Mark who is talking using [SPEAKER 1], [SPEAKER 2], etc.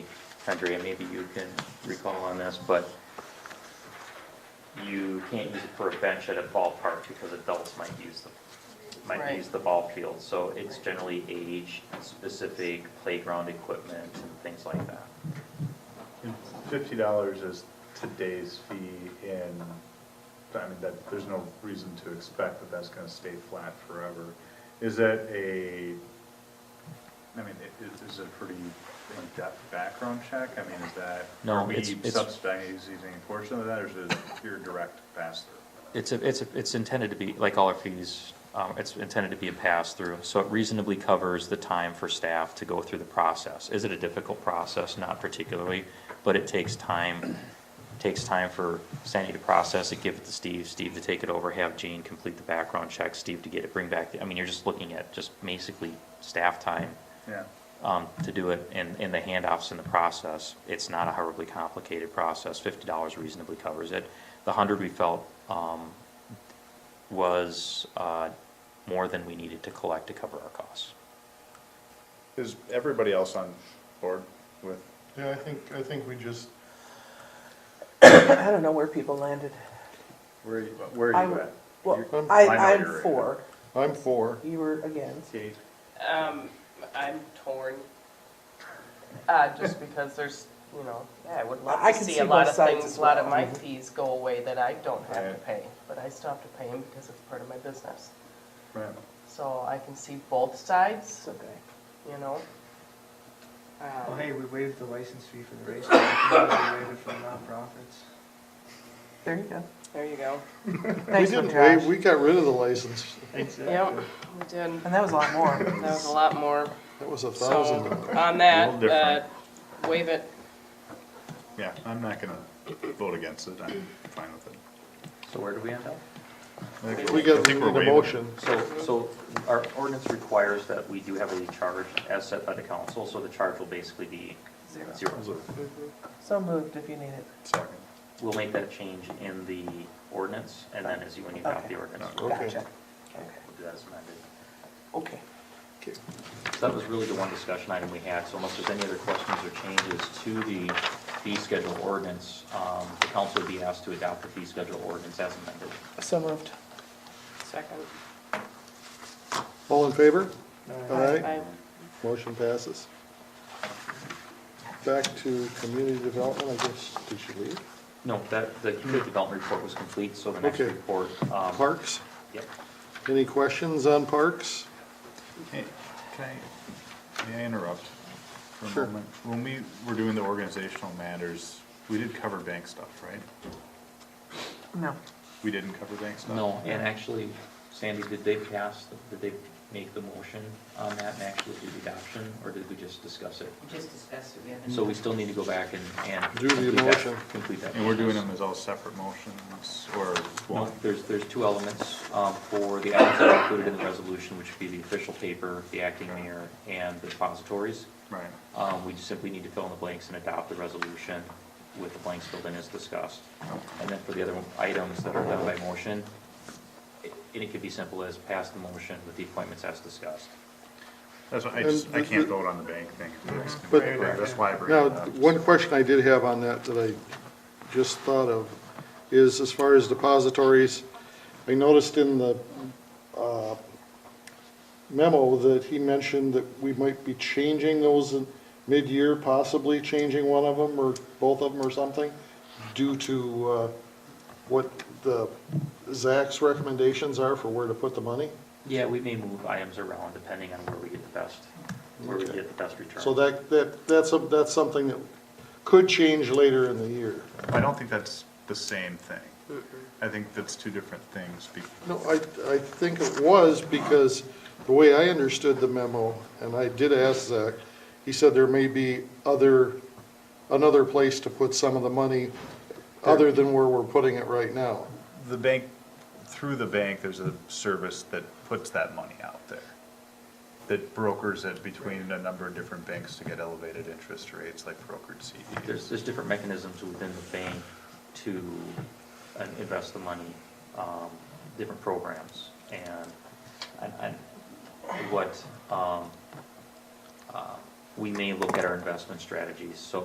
[SPEAKER 1] Andrea, maybe you can recall on this, but you can't use it for a bench at a ballpark because adults might use the, might
[SPEAKER 2] Right.
[SPEAKER 1] use the ball field. So it's generally age-specific playground equipment and things like that.
[SPEAKER 3] Fifty dollars is today's fee and, I mean, that, there's no reason to expect that that's gonna stay flat forever. Is that a, I mean, i- is, is it a pretty in-depth background check? I mean, is that,
[SPEAKER 1] No,
[SPEAKER 3] are we
[SPEAKER 1] it's- it's-
[SPEAKER 3] subsidizing a portion of that, or is it your direct pass-through?
[SPEAKER 1] It's, a- it's, a- it's intended to be, like all our fees, um, it's intended to be a pass-through, so it reasonably covers the time for staff to go through the process. Is it a difficult process? Not particularly, but it takes time, takes time for Sandy to process it, give it to Steve, Steve to take it over, have Gene complete the background check, Steve to get it, bring back, the- I mean, you're just looking at just basically staff time
[SPEAKER 3] Yeah,
[SPEAKER 1] um, to do it and, and the handoffs in the process. It's not a horribly complicated process. Fifty dollars reasonably covers it. The hundred we felt, um, was, uh, more than we needed to collect to cover our costs.
[SPEAKER 3] is everybody else on board with?
[SPEAKER 4] Yeah, I think, I think we just,
[SPEAKER 2] I don't know where people landed.
[SPEAKER 3] Where, are you- where are
[SPEAKER 2] I'm-
[SPEAKER 3] you at?
[SPEAKER 4] You're-
[SPEAKER 2] Well,
[SPEAKER 4] I'm-
[SPEAKER 3] I
[SPEAKER 2] I,
[SPEAKER 3] know
[SPEAKER 2] I'm
[SPEAKER 3] you're in.
[SPEAKER 2] for,
[SPEAKER 4] I'm for.
[SPEAKER 2] you were against.
[SPEAKER 3] Kate?
[SPEAKER 5] Um, I'm torn, uh, just because there's, you know, yeah, I would
[SPEAKER 2] I
[SPEAKER 5] love
[SPEAKER 2] can
[SPEAKER 5] to see
[SPEAKER 2] see
[SPEAKER 5] a lot
[SPEAKER 2] both
[SPEAKER 5] of
[SPEAKER 2] sides
[SPEAKER 5] things,
[SPEAKER 2] as
[SPEAKER 5] a lot of
[SPEAKER 2] well. Mm-hmm.
[SPEAKER 5] my fees go away that I don't have to
[SPEAKER 3] Right.
[SPEAKER 5] pay, but I still have to pay them because it's part of my business.
[SPEAKER 3] Right.
[SPEAKER 5] So I can see both sides,
[SPEAKER 2] It's okay.
[SPEAKER 5] you know?
[SPEAKER 6] Well,
[SPEAKER 5] Um,
[SPEAKER 6] hey, we waived the license fee for the race. We waived it for nonprofits.
[SPEAKER 2] There you go.
[SPEAKER 5] There you go.
[SPEAKER 4] We
[SPEAKER 2] Thanks for
[SPEAKER 4] didn't waive,
[SPEAKER 2] Josh.
[SPEAKER 4] we got rid of the license.
[SPEAKER 5] Yep, we did.
[SPEAKER 2] And that was a lot more.
[SPEAKER 5] That was a lot more.
[SPEAKER 4] That was a thousand
[SPEAKER 5] So
[SPEAKER 4] dollars.
[SPEAKER 5] on
[SPEAKER 3] A
[SPEAKER 5] that,
[SPEAKER 3] little
[SPEAKER 5] uh,
[SPEAKER 3] different.
[SPEAKER 5] waive it.
[SPEAKER 3] Yeah, I'm not gonna vote against it, I'm fine with it.
[SPEAKER 1] So where do we end up?
[SPEAKER 4] We
[SPEAKER 3] I
[SPEAKER 4] got
[SPEAKER 3] think we're
[SPEAKER 4] the
[SPEAKER 3] waiving.
[SPEAKER 4] motion.
[SPEAKER 1] So, so our ordinance requires that we do have a charge as set by the council, so the charge will basically be zero.
[SPEAKER 3] Is it
[SPEAKER 2] So moved if you need it.
[SPEAKER 3] Second.
[SPEAKER 1] We'll make that change in the ordinance, and then as you, when you adopt the
[SPEAKER 2] Okay.
[SPEAKER 1] ordinance, we'll
[SPEAKER 4] Okay.
[SPEAKER 2] Gotcha.
[SPEAKER 1] do that as amended.
[SPEAKER 2] Okay.
[SPEAKER 4] Okay.
[SPEAKER 1] So that was really the one discussion item we had, so unless there's any other questions or changes to the fee schedule ordinance, um, the council would be asked to adopt the fee schedule ordinance as amended.
[SPEAKER 2] So moved.
[SPEAKER 5] Second.
[SPEAKER 4] All in favor? Aye.
[SPEAKER 5] I-
[SPEAKER 4] Motion passes. Back to community development, I guess. Did you leave?
[SPEAKER 1] No, that, the community development report was complete, so the next
[SPEAKER 4] Okay.
[SPEAKER 1] report.
[SPEAKER 3] Uh,
[SPEAKER 1] um,
[SPEAKER 4] Parks?
[SPEAKER 1] Yep.
[SPEAKER 4] Any questions on parks?
[SPEAKER 3] Hey, Can I, may I interrupt for
[SPEAKER 4] Sure.
[SPEAKER 3] a moment? When we were doing the organizational matters, we did cover bank stuff, right?
[SPEAKER 2] No.
[SPEAKER 3] We didn't cover bank stuff?
[SPEAKER 1] No, and actually, Sandy, did they pass, did they make the motion on that and actually do the adoption, or did we just discuss it?
[SPEAKER 7] Just discussed it, we haven't.
[SPEAKER 1] So we still need to go back and, and.
[SPEAKER 4] Do the
[SPEAKER 1] complete that-
[SPEAKER 4] motion.
[SPEAKER 1] Complete that.
[SPEAKER 3] And we're doing
[SPEAKER 1] process.
[SPEAKER 3] them as all separate motions or
[SPEAKER 1] No,
[SPEAKER 3] one?
[SPEAKER 1] there's, there's two elements um, for the items that are included in the resolution, which would be the official paper, the acting mayor, and the depositories.
[SPEAKER 3] Right.
[SPEAKER 1] Um, We just simply need to fill in the blanks and adopt the resolution with the blanks filled in as discussed. And then for the other items that are done by motion, it- and it could be simple as pass the motion with the appointments as discussed.
[SPEAKER 3] That's why I just,
[SPEAKER 4] And
[SPEAKER 3] I
[SPEAKER 4] the-
[SPEAKER 3] can't
[SPEAKER 4] the-
[SPEAKER 3] vote on the bank thing.
[SPEAKER 4] But-
[SPEAKER 3] That's why I bring
[SPEAKER 4] Now,
[SPEAKER 3] it up.
[SPEAKER 4] one question I did have on that that I just thought of is as far as depositories, I noticed in the uh, memo that he mentioned that we might be changing those in mid-year, possibly changing one of them or both of them or something due to uh, what the Zach's recommendations are for where to put the money.
[SPEAKER 1] Yeah, we may move items around depending on where we get the best, where we
[SPEAKER 4] Okay.
[SPEAKER 1] get the best return.
[SPEAKER 4] So that, that, that's, a- that's something that could change later in the year.
[SPEAKER 3] I don't think that's the same thing. I think that's two different things. be-
[SPEAKER 4] No, I, I think it was because the way I understood the memo, and I did ask Zach, he said there may be other, another place to put some of the money other than where we're putting it right now.
[SPEAKER 3] The bank, through the bank, there's a service that puts that money out there. That brokers it between a number of different banks to get elevated interest rates like brokered CDs.
[SPEAKER 1] There's, there's different mechanisms within the bank to uh, invest the money, um, different programs. And, and, and what, um, uh, we may look at our investment strategies. So